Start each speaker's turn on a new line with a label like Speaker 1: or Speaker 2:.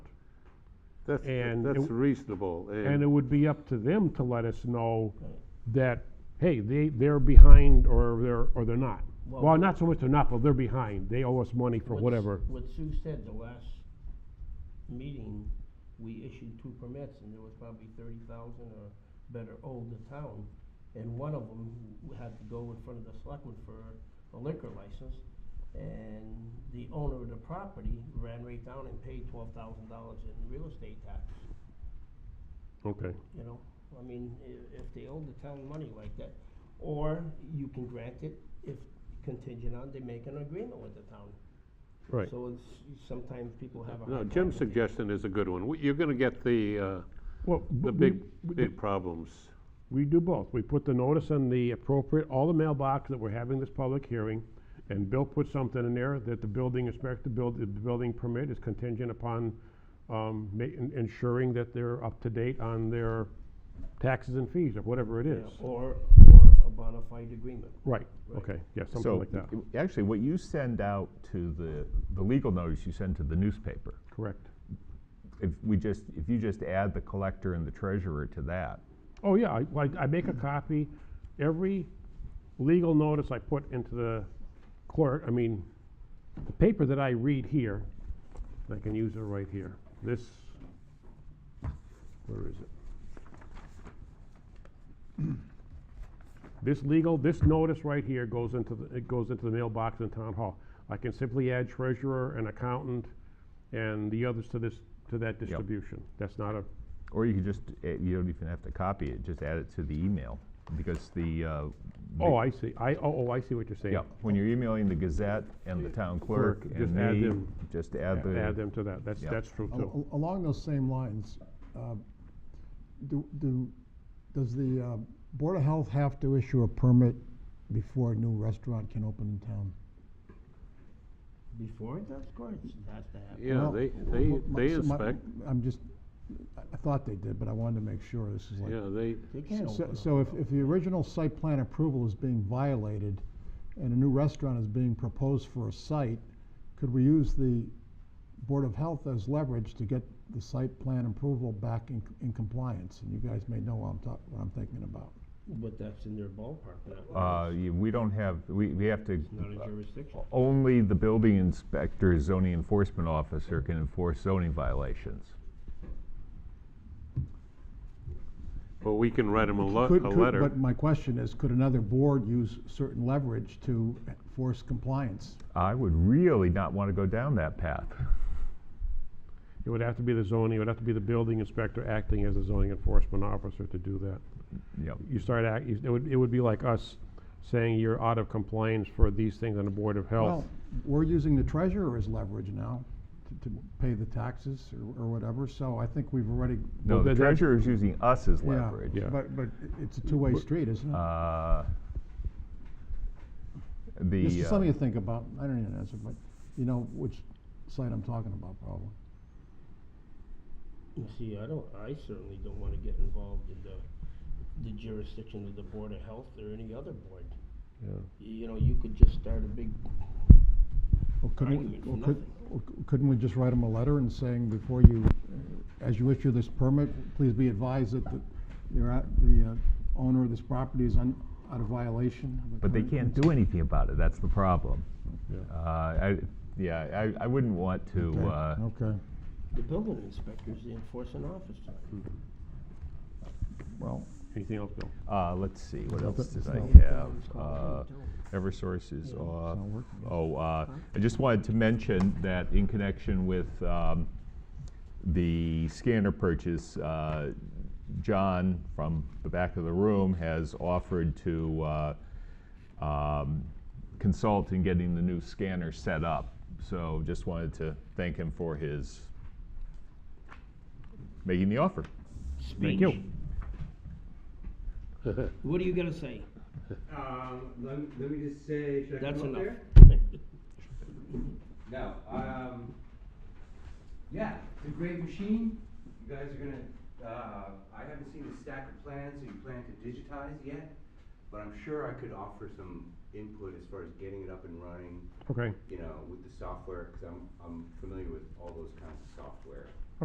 Speaker 1: That's,
Speaker 2: And
Speaker 1: that's
Speaker 2: it-
Speaker 1: reasonable,
Speaker 2: And it
Speaker 1: and,
Speaker 2: would be up to them to let us know that, hey, they, they're behind or they're, or they're not.
Speaker 3: Well-
Speaker 2: Well, not so much they're not, but they're behind. They owe us money for
Speaker 3: What s-
Speaker 2: whatever.
Speaker 3: What Sue said the last meeting, we issued two permits and there was probably thirty thousand or better owed the town. And one of them had to go in front of the selectmen for a liquor license. And the owner of the property ran right down and paid twelve thousand dollars in real estate tax,
Speaker 2: Okay.
Speaker 3: you know? I mean, i- if they owe the town money like that, or you can grant it if contingent on they make an agreement with the town.
Speaker 2: Right.
Speaker 3: So it's, sometimes people have a.
Speaker 1: no,
Speaker 3: hard
Speaker 1: Jim's
Speaker 3: time with it.
Speaker 1: suggestion is a good one. We- You're gonna get the, uh,
Speaker 2: Well,
Speaker 1: the
Speaker 2: we-
Speaker 1: big,
Speaker 2: we-
Speaker 1: big problems.
Speaker 2: We do both. We put the notice in the appropriate, all the mailbox that we're having this public hearing, and Bill put something in there that the building inspector, build, the building permit is contingent upon, um, ma- en- ensuring that they're up to date on their taxes and fees, or whatever it is.
Speaker 3: Yeah, Or, or a bona fide agreement.
Speaker 2: Right,
Speaker 3: Right.
Speaker 2: okay, yeah,
Speaker 4: So,
Speaker 2: something like that,
Speaker 4: y- Actually, what you send out to the, the legal notice you send to the newspaper,
Speaker 2: correct.
Speaker 4: if we just, if you just add the collector and the treasurer to that,
Speaker 2: Oh, yeah, I, like, I make a copy, every legal notice I put into the clerk, I mean, the paper that I read here, I can use it right here, this, where is it? This legal, this notice right here goes into the, it goes into the mailbox in town hall. I can simply add treasurer and accountant and the others to this, to that distribution. That's not a,
Speaker 4: or you could just, eh, you don't even have to copy it, just add it to the email, because the. uh, the-
Speaker 2: oh, I see, I, oh, oh, I see what you're saying.
Speaker 4: Yeah, when you're emailing the Gazette and the town clerk
Speaker 2: Clerk, just
Speaker 4: and
Speaker 2: add
Speaker 4: me,
Speaker 2: them.
Speaker 4: just add the.
Speaker 2: add them to that, that's,
Speaker 4: Yeah.
Speaker 2: that's true
Speaker 5: Al-
Speaker 2: too.
Speaker 5: al- Along those same lines, uh, do, do, does the uh, Board of Health have to issue a permit before a new restaurant can open in town?
Speaker 3: Before it does, of course, it has to happen.
Speaker 1: Yeah,
Speaker 5: Well,
Speaker 1: they, they,
Speaker 5: m- my-
Speaker 1: they
Speaker 5: so my-
Speaker 1: inspect,
Speaker 5: I'm just, I I thought they did, but I wanted to make sure this is like.
Speaker 1: yeah, they,
Speaker 3: They can't
Speaker 5: So-
Speaker 3: open
Speaker 5: So
Speaker 3: up.
Speaker 5: if, if the original site plan approval is being violated and a new restaurant is being proposed for a site, could we use the Board of Health as leverage to get the site plan approval back in, in compliance? And you guys may know what I'm talk, what I'm thinking about.
Speaker 3: But that's in their ballpark, not
Speaker 4: Uh,
Speaker 3: ours.
Speaker 4: y- we don't have, we, we have to, uh,
Speaker 3: It's not a jurisdiction.
Speaker 4: only the building inspector, zoning enforcement officer can enforce zoning violations.
Speaker 1: well, we can write them a lo-
Speaker 5: Could-
Speaker 1: a
Speaker 5: could-
Speaker 1: letter.
Speaker 5: But my question is, could another board use certain leverage to force compliance?
Speaker 4: I would really not want to go down that path.
Speaker 2: It would have to be the zoning, it would have to be the building inspector acting as a zoning enforcement officer to do that.
Speaker 4: Yep.
Speaker 2: You start act, you- it would, it would be like us saying you're out of compliance for these things on the Board of Health.
Speaker 5: Well, we're using the treasurer as leverage now to, to pay the taxes or, or whatever, so I think we've already.
Speaker 4: No, the
Speaker 2: that- that-
Speaker 4: treasurer is using us as
Speaker 5: Yeah,
Speaker 4: leverage.
Speaker 2: Yeah.
Speaker 5: But, but it- it's a two-way street, isn't it?
Speaker 4: Uh, The. uh,
Speaker 5: This is something to think about. I don't even answer, but you know which site I'm talking about probably.
Speaker 3: You see, I don't, I certainly don't wanna get involved in the, the jurisdiction of the Board of Health or any other board.
Speaker 2: Yeah.
Speaker 3: You know, you could just start a big,
Speaker 5: Well,
Speaker 3: Argument
Speaker 5: couldn't,
Speaker 3: for
Speaker 5: we- well, could- well, c- couldn't we just write them a letter and saying before you, uh, as you issue this permit, please be advised that the, you're at, the uh, owner of this property is un, out of violation of the
Speaker 4: But they
Speaker 5: current-
Speaker 4: can't do anything about it, that's the problem.
Speaker 2: Yeah.
Speaker 4: Uh, I, yeah, I, I wouldn't want to, uh,
Speaker 5: Okay, okay.
Speaker 3: the building inspector's the enforcing officer.
Speaker 5: well,
Speaker 2: Anything else, Bill?
Speaker 4: uh, let's see, what else did I
Speaker 5: no.
Speaker 4: have? Uh, Eversource is off.
Speaker 5: not working.
Speaker 4: Oh, uh, I just wanted to mention that in connection with um, the scanner purchase, uh, John from the back of the room has offered to uh, um, consult in getting the new scanner set up. So just wanted to thank him for his making the offer.
Speaker 2: Thank you.
Speaker 3: What are you gonna say?
Speaker 6: Um, let, me- let me just say, should I
Speaker 3: That's
Speaker 6: come up
Speaker 3: enough.
Speaker 6: there? No. Um, yeah, it's a great machine. You guys are gonna. Uh, I haven't seen the stack of plans that you plan to digitize yet, but I'm sure I could offer some input as far as getting it up and running.
Speaker 2: Okay,
Speaker 6: You know, with the software, because I'm I'm familiar with all those kinds of software.